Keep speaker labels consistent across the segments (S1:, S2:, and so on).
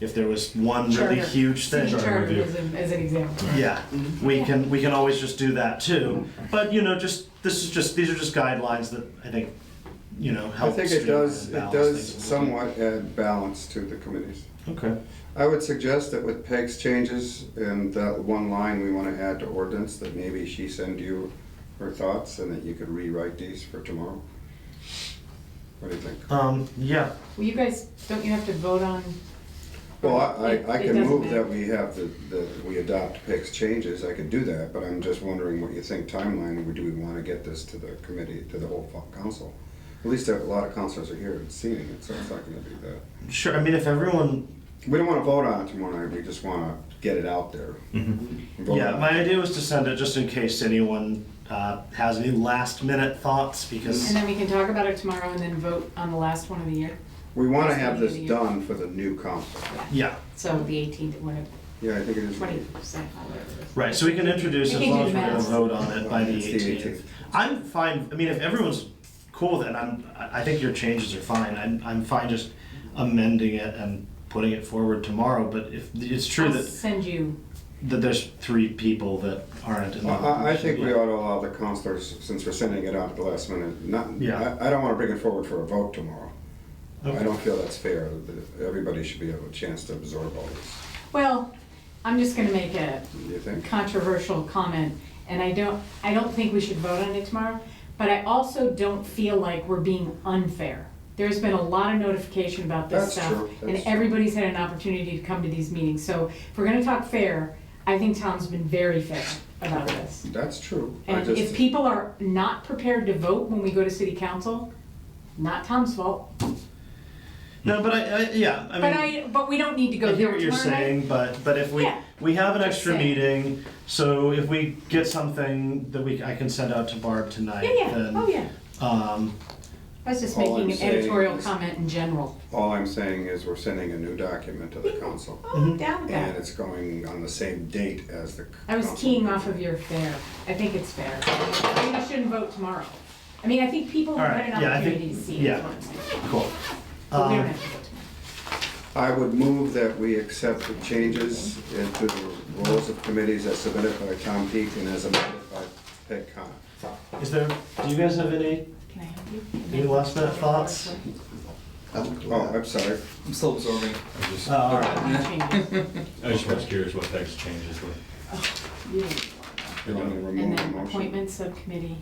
S1: if there was one really
S2: Charter.
S1: huge thing.
S2: City charter Mm-hmm.
S3: review.
S2: is, an- is an example.
S1: Yeah, we can, we can always just do that too, but you know, just, this is just, these are just guidelines that I think, you know,
S4: I
S1: help.
S4: think it
S1: streamline
S4: does,
S1: and
S4: it
S1: balance
S4: does
S1: things.
S4: somewhat add balance to the committees.
S1: Okay,
S4: I would suggest that with Peg's changes and that one line we want to add to ordinance, that maybe she send you her thoughts and that you could rewrite these for tomorrow. What do you think?
S1: um, yeah,
S2: Well, you guys, don't you have to vote on?
S4: Well, I, I- I
S2: It- it
S4: can
S2: doesn't
S4: move
S2: matter.
S4: that we have the, the, we adopt Peg's changes, I could do that, but I'm just wondering what you think timeline, would- do we want to get this to the committee, to the whole fu- council? At least a lot of councilors are here and seeing it, so it's not gonna be that.
S1: sure, I mean, if everyone
S4: We don't want to vote on it tomorrow night, we just want to get it out there. Vote
S1: Yeah,
S4: on it.
S1: my idea was to send it just in case anyone uh, has any last minute thoughts because
S2: And then we can talk about it tomorrow and then vote on the last one of the year,
S4: We want to have this
S2: Yes, we need to-
S4: done for the new council.
S1: yeah,
S2: so the eighteenth, whatever,
S4: Yeah, I think it is.
S2: twenty percent, whatever. it is.
S1: right. So we can introduce
S2: We
S1: as
S2: can
S1: long
S2: do
S1: as we're going to
S2: math.
S1: vote on it by the
S4: It's the
S1: 18th.
S4: 18th.
S1: I'm fine. I mean, if everyone's cool with it, I'm. I I think your changes are fine. I'm. I'm fine just amending it and putting it forward tomorrow. But if it's true
S2: I'll
S1: that
S2: send you,
S1: that there's three people that aren't in the,
S4: Well, I, I think we
S1: Yeah.
S4: ought to allow the councilors, since we're sending it out at the last minute, not,
S1: Yeah.
S4: I, I don't want to bring it forward for a vote tomorrow. I
S1: Okay.
S4: don't feel that's fair, that everybody should be able a chance to absorb all this,
S2: well, I'm just gonna make a
S4: do you think?
S2: controversial comment, and I don't, I don't think we should vote on it tomorrow, but I also don't feel like we're being unfair. There's been a lot of notification about this
S4: That's
S2: stuff.
S4: true,
S2: And
S4: that's true.
S2: everybody's had an opportunity to come to these meetings, so if we're gonna talk fair, I think Tom's been very fair about this.
S4: That's true. I
S2: And if
S4: just-
S2: people are not prepared to vote when we go to city council, not Tom's fault,
S1: No, but I, I yeah. I mean,
S2: but I, but we don't need to go
S1: I
S2: there
S1: hear what you're
S2: tomorrow night.
S1: saying, but, but if we,
S2: Yeah.
S1: we have an
S2: Just
S1: extra
S2: saying.
S1: meeting, so if we get something that we, I can send out to Barb tonight,
S2: Yeah, yeah,
S1: then.
S2: oh, yeah.
S1: Um,
S2: I was just
S4: All I'm
S2: making an
S4: saying
S2: editorial
S4: is-
S2: comment in general.
S4: All I'm saying is we're sending a new document to the council,
S2: Oh, I'm down with that.
S4: and it's going on the same date as the.
S2: I was
S4: council
S2: keying off
S4: meeting.
S2: of your fair. I think it's fair. I mean, I shouldn't vote tomorrow. I mean, I think people have had
S1: All
S2: an
S1: right, yeah, I think-
S2: opportunity to see it.
S1: yeah. cool.
S2: But we don't
S1: Um,
S2: have to vote tomorrow.
S4: I would move that we accept the changes into the roles of committees as submitted by Tom Peak and as amended by Peg Connor.
S1: Is there, do you guys have any,
S2: Can I help you?
S1: any last minute thoughts?
S4: Oh, I'm sorry.
S5: I'm still absorbing. I just,
S1: Uh, all right.
S2: Changes.
S3: I just was curious what text changes were.
S2: You.
S4: You want me to remove
S2: And
S4: the
S2: then
S4: motion?
S2: appointment subcommittee.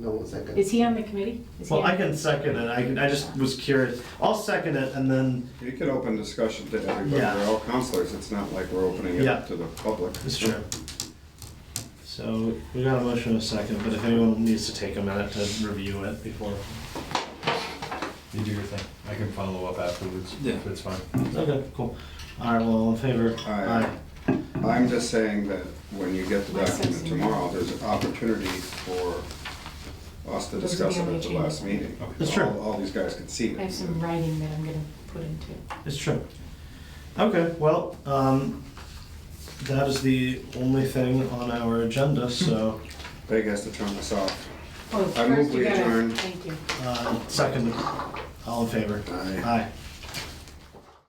S6: No, one second.
S2: Is he on the committee? Is he
S1: Well,
S2: on-
S1: I can second it, I can, I just was curious, I'll second it and then,
S4: You can open discussion to everybody,
S1: Yeah.
S4: we're all counselors, it's not like we're opening it
S1: Yeah.
S4: up to the public.
S1: it's true. So, we got a motion in a second, but if anyone needs to take a minute to review it before.
S3: You do your thing. I can follow up afterwards, if it's fine.
S1: Okay, cool. All right, well, all in favor?
S4: Aye. I'm just saying that when you get the
S2: My sense
S4: document
S2: is-
S4: tomorrow, there's an opportunity for us to
S2: Those are
S4: discuss
S2: the
S4: it
S2: only
S4: at the last
S2: changes.
S4: meeting.
S1: That's true.
S4: All- All these guys can see
S2: I have
S4: it.
S2: some writing that I'm gonna put into.
S1: It's true. Okay, well, um, that is the only thing on our agenda, so,
S4: Peg has to turn this off.
S2: Oh,
S4: I move
S2: first you
S4: we
S2: gotta-
S4: adjourn.
S2: Thank you.
S1: uh, second, all in favor?
S4: Aye.
S1: Aye.